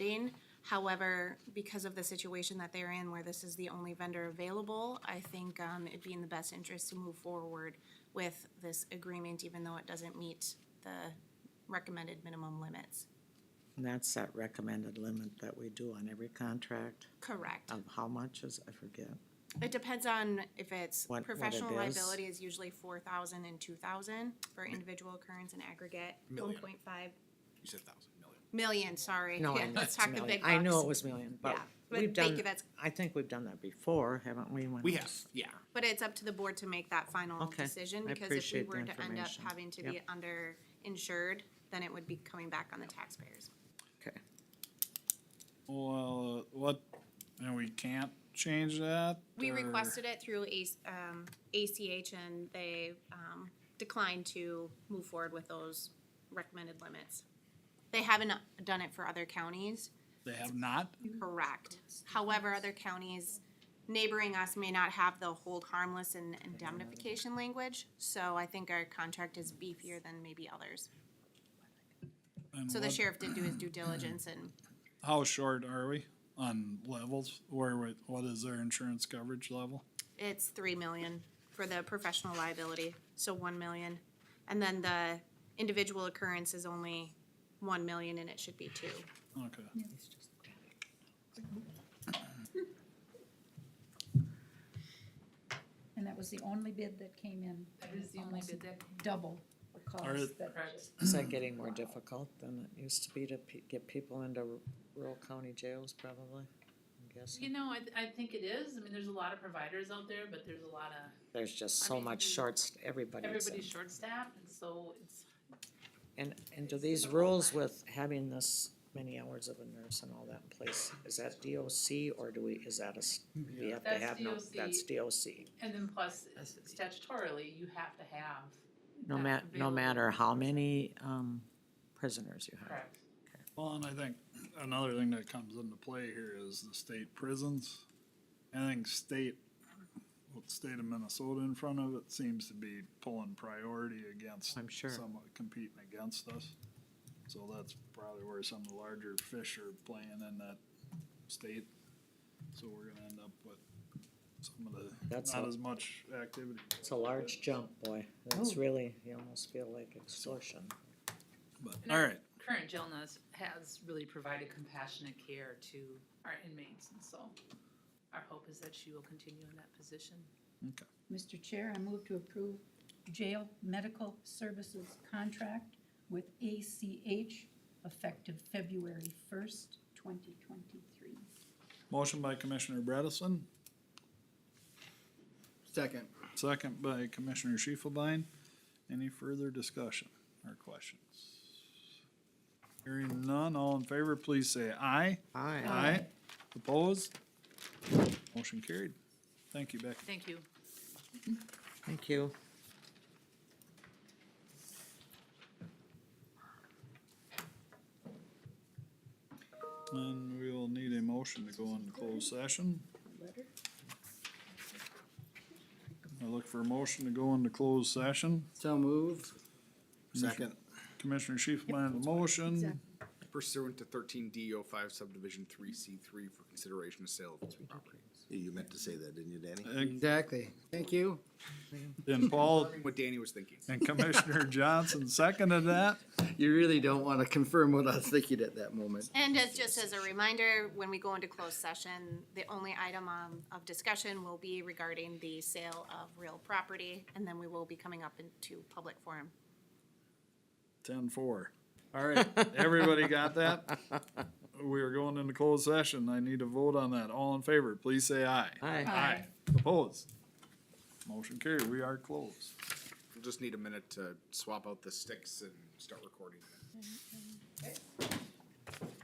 bidding. However, because of the situation that they're in where this is the only vendor available, I think um, it'd be in the best interest to move forward with this agreement, even though it doesn't meet the recommended minimum limits. And that's that recommended limit that we do on every contract Correct. of how much is, I forget. It depends on if it's What- what it professional is. liability is usually four thousand and two thousand for individual occurrence and aggregate, one Million. point five You said thousand million. million, sorry. No, I Yeah, know Let's it's talk the million. big bucks. I know it was million, but Yeah, but we've thank done, you, that's- I think we've done that before, haven't we? when We it have, was- yeah. But it's up to the board to make that final Okay, decision, I because if we appreciate the were to end up information. having to be Yep. underinsured, then it would be coming back on the taxpayers. Okay, Well, uh, what, and we can't change that? We or- requested it through A, um, ACH and they, um, declined to move forward with those recommended limits. They haven't done it for other counties, They have not? correct. However, other counties neighboring us may not have the hold harmless and indemnification language, so I think our contract is beefier than maybe others. And So the what- sheriff did do his due diligence and How short are we on levels? Where, we- what is their insurance coverage level? it's three million for the professional liability, so one million. And then the individual occurrence is only one million and it should be two. Okay. And that was the only bid that came in. That is the only almost bid that- Double the Are cost it- that, is that getting more difficult than it used to be to pe- get people into rural county jails probably? I'm You guessing. know, I, th- I think it is. I mean, there's a lot of providers out there, but there's a lot of, There's just I so mean, much shorts, everybody's in. everybody's short staffed and so it's, And, and do It's in these the rules outline. with having this many hours of a nurse and all that in place, is that DOC or do we, is that a, s- we have to That's have no, DOC. that's DOC. and then plus statutorily, you have to have. No that ma- no available. matter how many, um, prisoners you have. Correct. Well, and I think another thing that comes into play here is the state prisons. I think state, with the state of Minnesota in front of it seems to be pulling priority against. I'm sure. Somewhat competing against us. So that's probably where some of the larger fish are playing in that state. So we're gonna end up with some of That's the, not a- as much activity. It's a large jump, boy. It's really, you almost feel like extortion. But, And all our right, Current jailness has really provided compassionate care to our inmates and so our hope is that she will continue in that position. okay. Mr. Chair, I move to approve jail medical services contract with ACH effective February first, twenty twenty-three. Motion by Commissioner Bredesen, Second. Second by Commissioner Shifelbein. Any further discussion or questions? Hearing none, all in favor, please say aye. Aye. Aye. Opposed? Motion carried. Thank you, Becky. Thank you. Thank you. And we'll need a motion to go into closed session. Letter? I look for a motion to go into closed session. So moved. Second. Commissioner Shifelbein, the motion. pursuant to thirteen D O five subdivision three C three for consideration of sale of this property. You meant to say that, didn't you, Danny? Exactly. Thank you. And Paul What Danny was thinking. and Commissioner Johnson seconded that. You really don't want to confirm what I was thinking at that moment. And as, just as a reminder, when we go into closed session, the only item um, of discussion will be regarding the sale of real property, and then we will be coming up into public forum. Ten four. All right, everybody got that? We are going into closed session. I need to vote on that. All in favor, please say aye. Aye. Aye. Opposed? Motion carried. We are closed. We'll just need a minute to swap out the sticks and start recording.